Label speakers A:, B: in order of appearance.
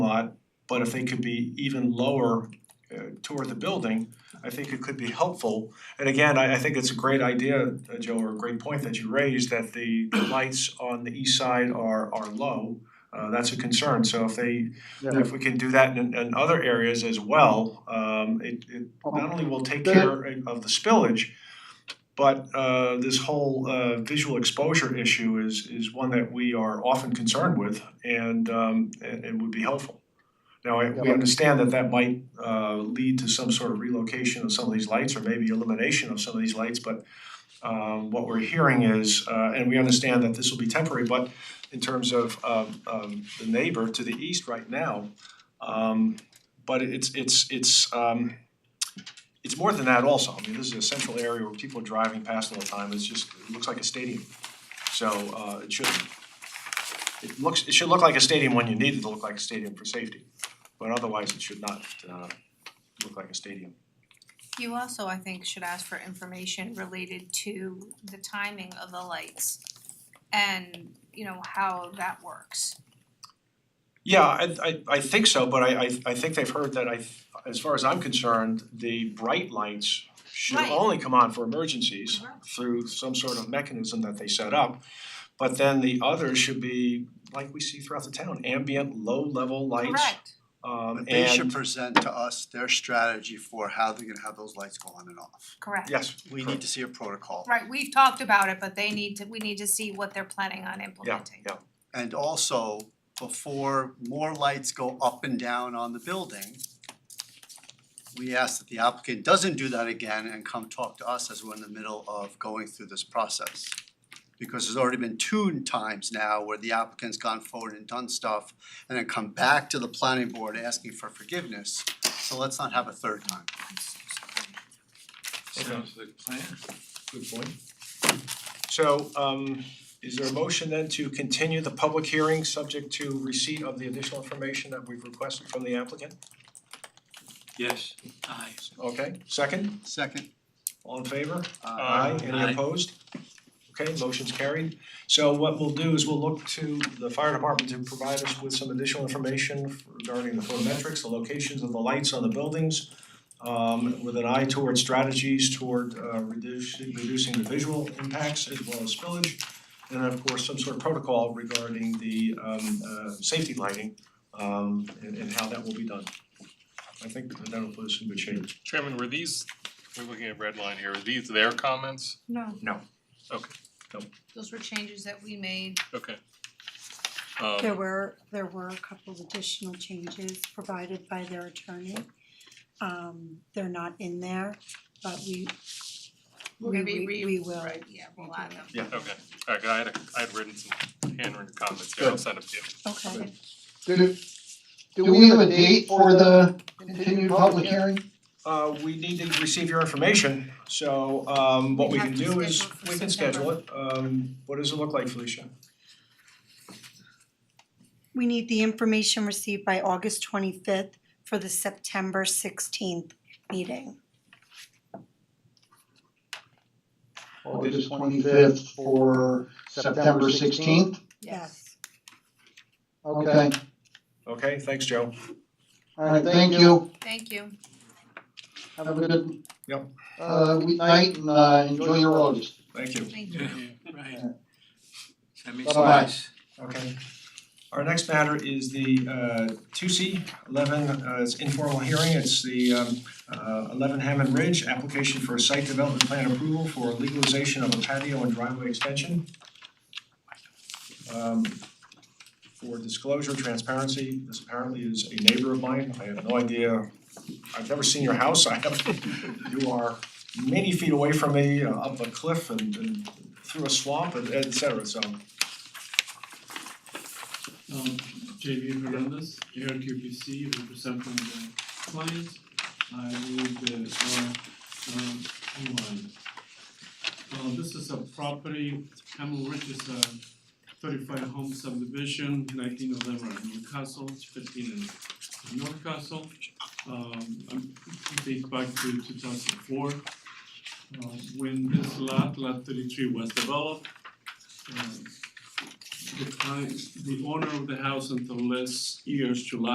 A: lot, but if they could be even lower uh, toward the building, I think it could be helpful. And again, I I think it's a great idea, uh, Joe, or a great point that you raised, that the the lights on the east side are are low. Uh that's a concern, so if they, if we can do that in in other areas as well, um it it not only will take care of the spillage, but uh this whole uh visual exposure issue is is one that we are often concerned with and um and it would be helpful. Now, I we understand that that might uh lead to some sort of relocation of some of these lights or maybe elimination of some of these lights, but um what we're hearing is, uh and we understand that this will be temporary, but in terms of um um the neighbor to the east right now, um but it's it's it's um it's more than that also. I mean, this is a central area where people are driving past all the time. It's just, it looks like a stadium. So uh it shouldn't. It looks, it should look like a stadium when you need it to look like a stadium for safety, but otherwise it should not uh look like a stadium.
B: You also, I think, should ask for information related to the timing of the lights and, you know, how that works.
A: Yeah, I I I think so, but I I I think they've heard that I, as far as I'm concerned, the bright lights should
B: Right. Uh-huh.
A: only come on for emergencies
B: Correct.
A: through some sort of mechanism that they set up. But then the others should be, like we see throughout the town, ambient, low-level lights.
B: Correct.
A: Um
C: But they should
A: and,
C: present to us their strategy for how they're gonna have those lights go on and off.
B: Correct.
A: yes,
C: We need to see a protocol.
B: Right, we've talked about it, but they need to, we need to see what they're planning on
A: yeah,
B: implementing.
A: yeah,
C: And also, before more lights go up and down on the building, we ask that the applicant doesn't do that again and come talk to us as we're in the middle of going through this process. Because there's already been two times now where the applicant's gone forward and done stuff and then come back to the planning board asking for forgiveness. So let's not have a third time.
D: Sounds like a plan.
A: good point. So um is there a motion then to continue the public hearing subject to receipt of the additional information that we've requested from the applicant?
D: Yes, aye.
A: Okay, second?
C: Second,
A: All in favor?
C: Uh,
D: Aye.
A: Any
D: Aye.
A: opposed? Okay, motion's carried. So what we'll do is we'll look to the fire department to provide us with some additional information regarding the photometrics, the locations of the lights on the buildings, um with an eye toward strategies toward uh reducing reducing the visual impacts as well as spillage. And of course, some sort of protocol regarding the um uh safety lighting um and and how that will be done. I think that'll put us in good shape.
E: Chairman, were these, we're looking at red line here, were these their comments?
B: No, those were changes that we made.
E: Okay. Um,
F: There were, there were a couple of additional changes provided by their attorney. Um, they're not in there, but we,
B: We're
F: we,
B: gonna be
F: we,
B: re-
F: we will.
B: Right, yeah, we'll add them.
A: Yeah.
E: okay, alright, I had a, I had written some handwritten comments here, I'll send them to you.
F: Okay.
G: Do, do we have a date for the continued public hearing?
A: Uh, we need to receive your information, so um what
B: We'd
A: we
B: have
A: can
B: to
A: do is,
B: schedule it for
A: we can schedule it, um what does it look like, Felicia?
F: We need the information received by August twenty-fifth for the September sixteenth meeting.
G: August twenty-fifth for September sixteenth?
F: Yes.
G: Okay,
A: Okay, thanks, Joe.
G: all right, thank you.
B: Thank you.
G: Have a good
A: Yep.
G: uh, week- night and uh, enjoy your August.
A: Thank you.
B: Thank you.
D: Yeah, right. That makes
G: Bye-bye.
D: sense.
A: Okay. Our next matter is the uh two C eleven, uh it's informal hearing, it's the um uh eleven Hammond Ridge, application for a site development plan approval for legalization of a patio and driveway extension. Um for disclosure, transparency, this apparently is a neighbor of mine, I have no idea, I've never seen your house, I have, you are many feet away from me, uh, up a cliff and and through a swamp and et cetera, so
H: Um, JV Hernandez, ARQPC, representing the clients. I move the, uh, um, online. Uh, this is a property, Emerald Ridge is a thirty-five home subdivision, nineteen eleven Newcastle, fifteen in Newcastle. Um, um, dates back to two thousand four. Uh, when this lot, lot thirty-three was developed, um, the client, the owner of the house until last year's July